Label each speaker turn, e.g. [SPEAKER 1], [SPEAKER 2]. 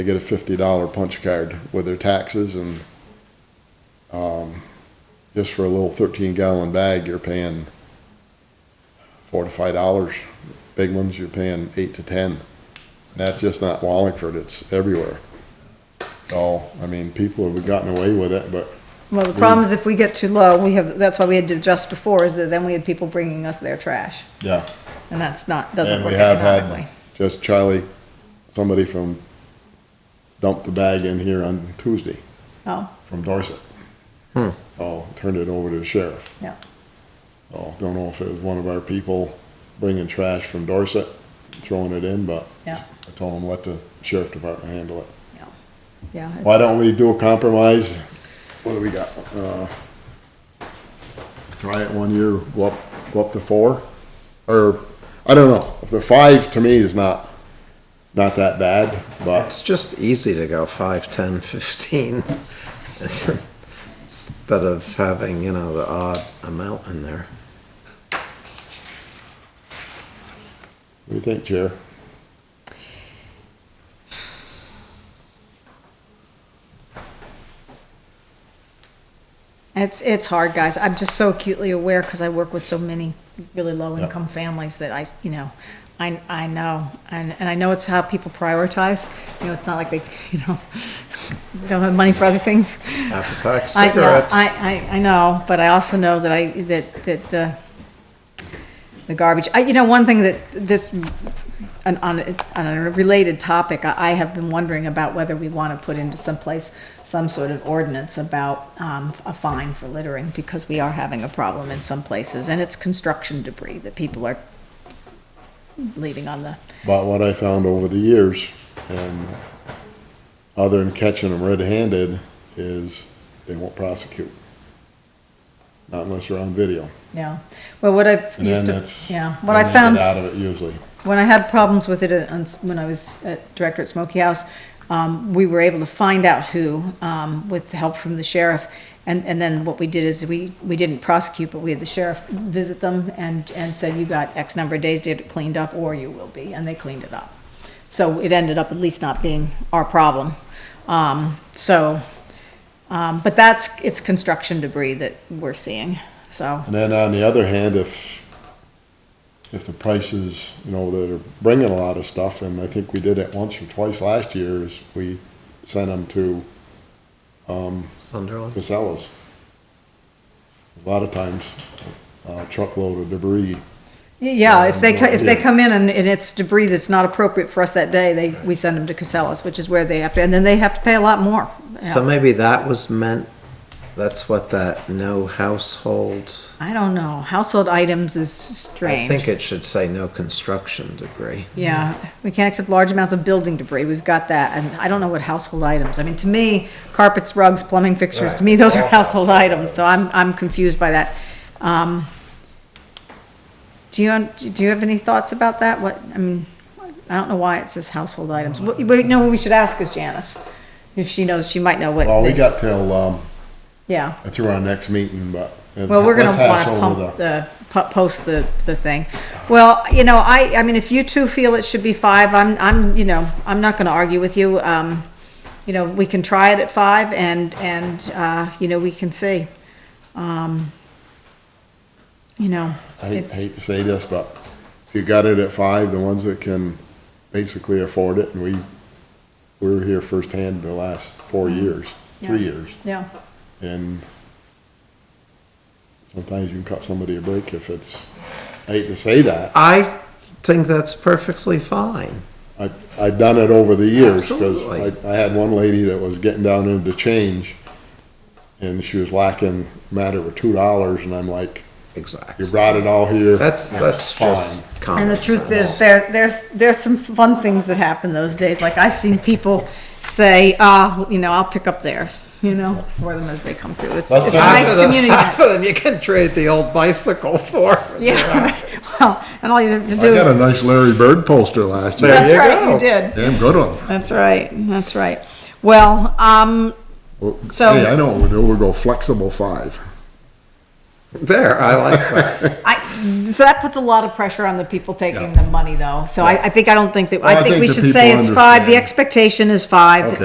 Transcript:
[SPEAKER 1] They get a fifty dollar punch card with their taxes and, um, just for a little thirteen gallon bag, you're paying four to five dollars. Big ones, you're paying eight to ten. And that's just not Wallingford, it's everywhere. So, I mean, people have gotten away with it, but
[SPEAKER 2] Well, the problem is if we get too low, we have, that's why we had to adjust before, is that then we had people bringing us their trash.
[SPEAKER 1] yeah.
[SPEAKER 2] And that's not,
[SPEAKER 1] And
[SPEAKER 2] doesn't
[SPEAKER 1] we
[SPEAKER 2] work
[SPEAKER 1] have had
[SPEAKER 2] economically.
[SPEAKER 1] Just Charlie, somebody from dumped the bag in here on Tuesday
[SPEAKER 2] Oh,
[SPEAKER 1] from Dorset. So turned it over to the sheriff.
[SPEAKER 2] yeah.
[SPEAKER 1] Oh, don't know if it was one of our people bringing trash from Dorset, throwing it in, but
[SPEAKER 2] Yeah.
[SPEAKER 1] I told them let the sheriff department handle it.
[SPEAKER 2] Yeah.
[SPEAKER 1] Why
[SPEAKER 2] it's-
[SPEAKER 1] don't we do a compromise? What do we got? Uh, Try it one year, go up, go up to four? Or, I don't know, if the five to me is not, not that bad, but
[SPEAKER 3] It's just easy to go five, ten, fifteen, instead of having, you know, the odd amount in there.
[SPEAKER 1] what do you think, Chair?
[SPEAKER 2] It's, it's hard, guys. I'm just so acutely aware because I work with so many really low-income families that I, you know, I, I know. And, and I know it's how people prioritize. You know, it's not like they, you know, don't have money for other things.
[SPEAKER 3] Half a pack of
[SPEAKER 2] I, yeah,
[SPEAKER 3] Uh, cigarettes.
[SPEAKER 2] I, I, I know, but I also know that I, that, that the, the garbage, I, you know, one thing that this, on, on, on a related topic, I, I have been wondering about whether we want to put into some place some sort of ordinance about, um, a fine for littering, because we are having a problem in some places, and it's construction debris that people are leaving on the,
[SPEAKER 1] But what I found over the years, and other than catching them red-handed, is they won't prosecute. Not unless you're on video.
[SPEAKER 2] yeah. Well, what I've
[SPEAKER 1] And then
[SPEAKER 2] used to,
[SPEAKER 1] that's.
[SPEAKER 2] yeah, what I
[SPEAKER 1] then they get
[SPEAKER 2] found.
[SPEAKER 1] Out of it usually.
[SPEAKER 2] when I had problems with it at- on- when I was at director at Smoky House, um, we were able to find out who, um, with the help from the sheriff. And, and then what we did is we, we didn't prosecute, but we had the sheriff visit them and, and said, you got X number of days to get it cleaned up or you will be. And they cleaned it up. So it ended up at least not being our problem. Um, so, um, but that's, it's construction debris that we're seeing, so.
[SPEAKER 1] And then on the other hand, if, if the prices, you know, that are bringing a lot of stuff, and I think we did it once or twice last year, is we sent them to um,
[SPEAKER 3] Sunderland.
[SPEAKER 1] Casellas. A lot of times, uh, truckload of debris
[SPEAKER 2] Yeah, if they, co- if they
[SPEAKER 1] Yeah.
[SPEAKER 2] come in and, and it's debris that's not appropriate for us that day, they, we send them to Casellas, which is where they have to, and then they have to pay a lot more. Yeah.
[SPEAKER 3] So maybe that was meant, that's what that no household.
[SPEAKER 2] I don't know, household items is
[SPEAKER 3] I think
[SPEAKER 2] strange.
[SPEAKER 3] it should say no construction debris.
[SPEAKER 2] Yeah, we can't accept large amounts of building debris, we've got that, and I don't know what household items, I mean, to me, carpets, rugs, plumbing fixtures, to me, those are
[SPEAKER 3] Right.
[SPEAKER 2] household items, so I'm, I'm confused by that. Um, Do you, do you have any thoughts about that? What, I mean, I don't know why it says household items. What, wait, no, we should ask is Janice. If she knows, she might know what.
[SPEAKER 1] Well, we
[SPEAKER 2] the-
[SPEAKER 1] got till, um,
[SPEAKER 2] Yeah,
[SPEAKER 1] through our next meeting, but.
[SPEAKER 2] well, we're gonna
[SPEAKER 1] let's hash
[SPEAKER 2] wanna
[SPEAKER 1] over
[SPEAKER 2] pump the, pu- post the, the thing. Well, you know, I, I mean, if you two feel it should be five, I'm, I'm, you know, I'm not gonna argue with you. Um, you know, we can try it at five and, and, uh, you know, we can see. Um, you know,
[SPEAKER 1] I hate,
[SPEAKER 2] it's,
[SPEAKER 1] hate to say this, but if you got it at five, the ones that can basically afford it, and we, we were here firsthand the last four years, three
[SPEAKER 2] Mm-hmm. Yeah.
[SPEAKER 1] years,
[SPEAKER 2] yeah.
[SPEAKER 1] and sometimes you can cut somebody a break if it's, I hate to say that,
[SPEAKER 3] I think that's perfectly fine.
[SPEAKER 1] I, I've done it over the years, because
[SPEAKER 3] Absolutely.
[SPEAKER 1] I, I had one lady that was getting down into change, and she was lacking matter of two dollars, and I'm like, you
[SPEAKER 3] Exactly.
[SPEAKER 1] brought it all here.
[SPEAKER 3] That's, that's
[SPEAKER 1] fine."
[SPEAKER 3] just common
[SPEAKER 2] And the truth
[SPEAKER 3] sense.
[SPEAKER 2] is, there, there's, there's some fun things that happen those days, like I've seen people say, ah, you know, I'll pick up theirs, you know, for them as they come through, it's,
[SPEAKER 1] That's
[SPEAKER 2] it's a
[SPEAKER 1] fine.
[SPEAKER 2] nice
[SPEAKER 3] Half of them-
[SPEAKER 2] community.
[SPEAKER 3] Half of them you can trade the old bicycle for.
[SPEAKER 2] Yeah, well, and all you have to
[SPEAKER 1] I got a
[SPEAKER 2] do,
[SPEAKER 1] nice Larry Bird poster last year.
[SPEAKER 2] that's
[SPEAKER 3] There you
[SPEAKER 2] right, you
[SPEAKER 3] go.
[SPEAKER 2] did,
[SPEAKER 1] Damn good one.
[SPEAKER 2] that's right, that's right. Well, um,
[SPEAKER 1] Well,
[SPEAKER 2] So-
[SPEAKER 1] Hey, I know, we'll do- we'll go flexible five.
[SPEAKER 3] There, I like that.
[SPEAKER 2] I, so that puts a lot of pressure on the people taking the money though. So I, I think, I don't think that,
[SPEAKER 1] Well,
[SPEAKER 2] I think we
[SPEAKER 1] the
[SPEAKER 2] should say
[SPEAKER 1] people
[SPEAKER 2] it's five, the
[SPEAKER 1] understand.
[SPEAKER 2] expectation is five.